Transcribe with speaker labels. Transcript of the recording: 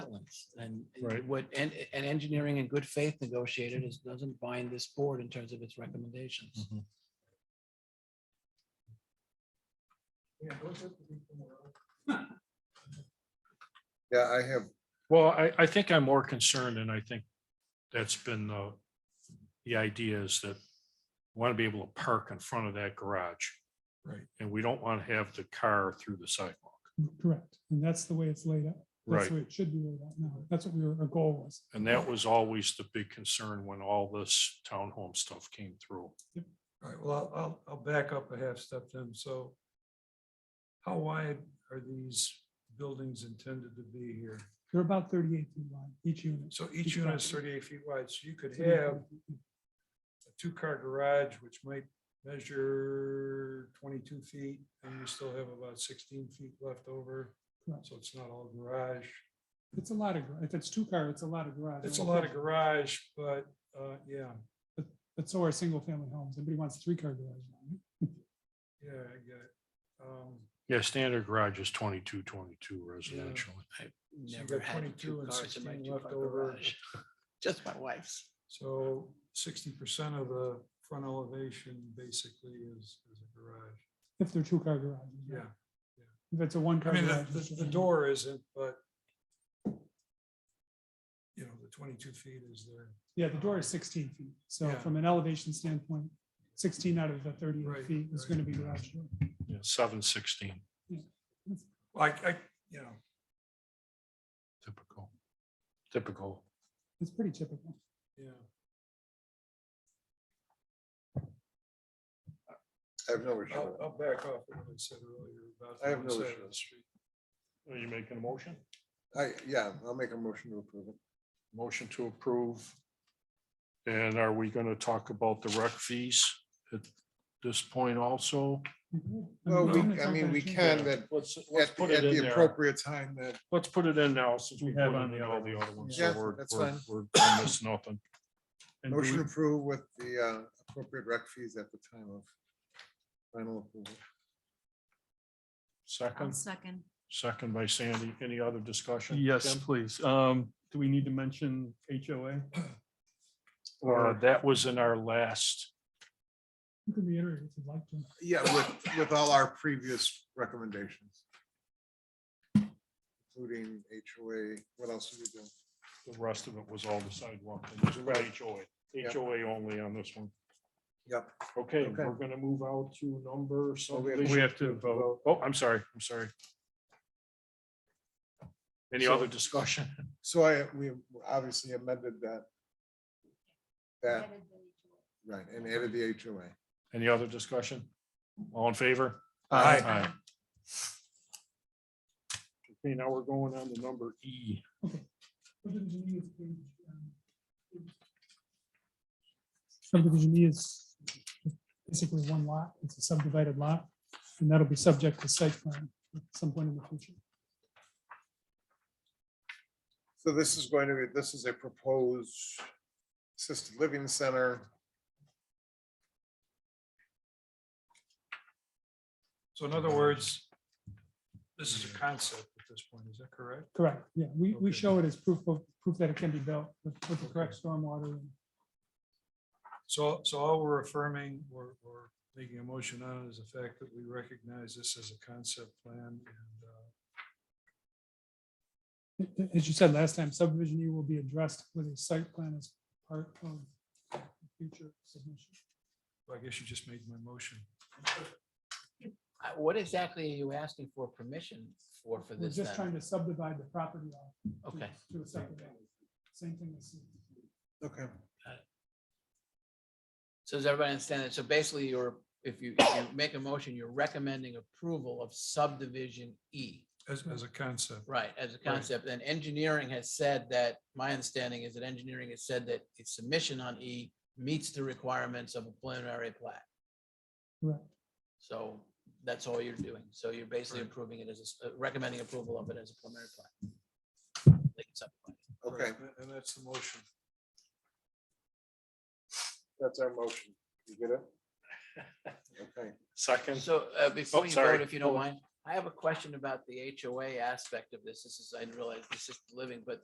Speaker 1: and
Speaker 2: Right.
Speaker 1: what, and, and engineering in good faith negotiated is, doesn't bind this board in terms of its recommendations.
Speaker 2: Mm-hmm.
Speaker 3: Yeah, I have,
Speaker 2: Well, I, I think I'm more concerned and I think that's been the, the idea is that want to be able to park in front of that garage.
Speaker 4: Right.
Speaker 2: And we don't want to have the car through the sidewalk.
Speaker 5: Correct. And that's the way it's laid out. That's
Speaker 2: Right.
Speaker 5: the way it should be laid out now. That's what we were, our goal was.
Speaker 2: And that was always the big concern when all this townhome stuff came through.
Speaker 4: All right, well, I'll, I'll, I'll back up a half step then, so. How wide are these buildings intended to be here?
Speaker 5: They're about thirty-eight feet wide, each unit.
Speaker 4: So each unit is thirty-eight feet wide, so you could have a two-car garage, which might measure twenty-two feet, and you still have about sixteen feet left over.
Speaker 5: Correct.
Speaker 4: So it's not all garage.
Speaker 5: It's a lot of, gar- if it's two car, it's a lot of garage.
Speaker 4: It's a lot of garage, but, uh, yeah,
Speaker 5: But so are single family homes. Everybody wants three car garage. now,
Speaker 4: yeah, I get it. Um,
Speaker 2: Yeah, standard garage is twenty-two, twenty-two residential.
Speaker 4: you
Speaker 1: Never
Speaker 4: got
Speaker 1: had
Speaker 4: 22
Speaker 1: two
Speaker 4: and
Speaker 1: cars in my
Speaker 4: 16
Speaker 1: two-car
Speaker 4: left over.
Speaker 1: garage. Just my wife's.
Speaker 4: So sixty percent of the front elevation basically is, is a garage.
Speaker 5: If they're two car garages. right?
Speaker 4: Yeah,
Speaker 5: If it's a one
Speaker 4: I
Speaker 5: car.
Speaker 4: mean, the,
Speaker 5: garage, it's
Speaker 4: the,
Speaker 5: just
Speaker 4: the
Speaker 5: a-
Speaker 4: door isn't, but you know, the twenty-two feet is there.
Speaker 5: Yeah, the door is sixteen feet. So
Speaker 4: Yeah.
Speaker 5: from an elevation standpoint, sixteen out of the
Speaker 4: Right,
Speaker 5: thirty-eight feet is
Speaker 4: right.
Speaker 5: going to be garage. door.
Speaker 2: Yeah, seven sixteen
Speaker 4: Like, I, you know,
Speaker 2: typical. Typical.
Speaker 5: It's pretty typical.
Speaker 4: yeah.
Speaker 3: I have no issue.
Speaker 2: Oh,
Speaker 4: I'll,
Speaker 3: with it.
Speaker 4: I'll back off what I said earlier about. the
Speaker 3: I have no
Speaker 4: side of
Speaker 3: issue.
Speaker 4: the street.
Speaker 2: Are you making a motion? oh.
Speaker 3: I, yeah, I'll make a motion to approve it.
Speaker 2: Motion to approve. And are we going to talk about the rec fees at this point also?
Speaker 3: Well,
Speaker 5: we're gonna
Speaker 3: we, I
Speaker 5: talk
Speaker 3: mean,
Speaker 5: about
Speaker 3: we
Speaker 5: it soon.
Speaker 3: can, but
Speaker 2: Let's, let's
Speaker 3: at,
Speaker 2: put
Speaker 3: the- at
Speaker 2: it in
Speaker 3: the
Speaker 2: there.
Speaker 3: appropriate time that,
Speaker 2: Let's put it in now since we
Speaker 4: We
Speaker 2: have
Speaker 4: have
Speaker 2: on
Speaker 4: it
Speaker 2: the,
Speaker 4: on
Speaker 2: all
Speaker 4: there.
Speaker 2: the other ones.
Speaker 3: Yeah,
Speaker 2: so we're-
Speaker 3: that's
Speaker 2: we're-
Speaker 3: fine.
Speaker 2: We're gonna miss nothing.
Speaker 4: And do
Speaker 3: motion
Speaker 4: we-
Speaker 3: approved with the uh, appropriate rec fees at the time of final approval.
Speaker 6: I'll
Speaker 2: Second,
Speaker 6: second.
Speaker 2: second by Sandy. Any other discussion?
Speaker 7: Yes,
Speaker 2: Tim?
Speaker 7: please. Um, do we need to mention HOA?
Speaker 2: Uh, That was in our last,
Speaker 5: You can reiterate if you'd like to.
Speaker 3: Yeah, with, with all our previous recommendations. Including HOA, what else did we do?
Speaker 2: the rest of it was all the sidewalk. It was about HOA, HOA only on this one.
Speaker 3: Yep.
Speaker 2: Okay,
Speaker 3: Okay.
Speaker 2: we're gonna move out to number
Speaker 7: We
Speaker 2: subdivision.
Speaker 7: have to vote.
Speaker 2: Oh, I'm sorry, I'm sorry. Any
Speaker 3: So-
Speaker 2: other discussion?
Speaker 3: So I, we obviously amended that. That, right, and added the HOA.
Speaker 2: Any other discussion? All in favor?
Speaker 3: Aye.
Speaker 2: Okay, now we're going on to number E.
Speaker 5: Subdivision E is page, um, Subdivision E is basically one lot. It's a subdivided lot, and that'll be subject to site plan at some point in the future.
Speaker 3: So this is going to be, this is a proposed assisted living center.
Speaker 4: So in other words, this is a concept at this point, is that correct?
Speaker 5: Correct, yeah. We, we
Speaker 4: Okay.
Speaker 5: show it as proof of, proof that it can be built with with the correct stormwater. and-
Speaker 4: So, so all we're affirming or, or making a motion on is the fact that we recognize this as a concept plan and, uh,
Speaker 5: As you said last time, subdivision E will be addressed with a site plan as part of the future submission.
Speaker 4: well, I guess you just made my motion.
Speaker 1: Uh, What exactly are you asking for permission for, for
Speaker 5: We're
Speaker 1: this?
Speaker 5: just
Speaker 1: then?
Speaker 5: trying to subdivide the property off. to-
Speaker 1: Okay.
Speaker 5: To a separate alley. Same thing as.
Speaker 3: Okay.
Speaker 1: So does everybody understand that? So basically, you're, if you, if you make a motion, you're recommending approval of subdivision E,
Speaker 4: As, as a concept,
Speaker 1: right, as a concept. And engineering has said that, my understanding is that engineering has said that its submission on E meets the requirements of a preliminary plat.
Speaker 5: Correct.
Speaker 1: So that's all you're doing. So you're basically
Speaker 4: Right.
Speaker 1: approving it as, a s- uh, recommending approval of it as a preliminary plat. Like it's up.
Speaker 3: Okay,
Speaker 4: and- and that's the motion.
Speaker 3: that's our motion. You get it? Okay.
Speaker 2: Second.
Speaker 1: So uh, before you
Speaker 2: sorry.
Speaker 1: vote, if you don't mind, I have a question about the HOA aspect of this. This is, I didn't realize this is living, but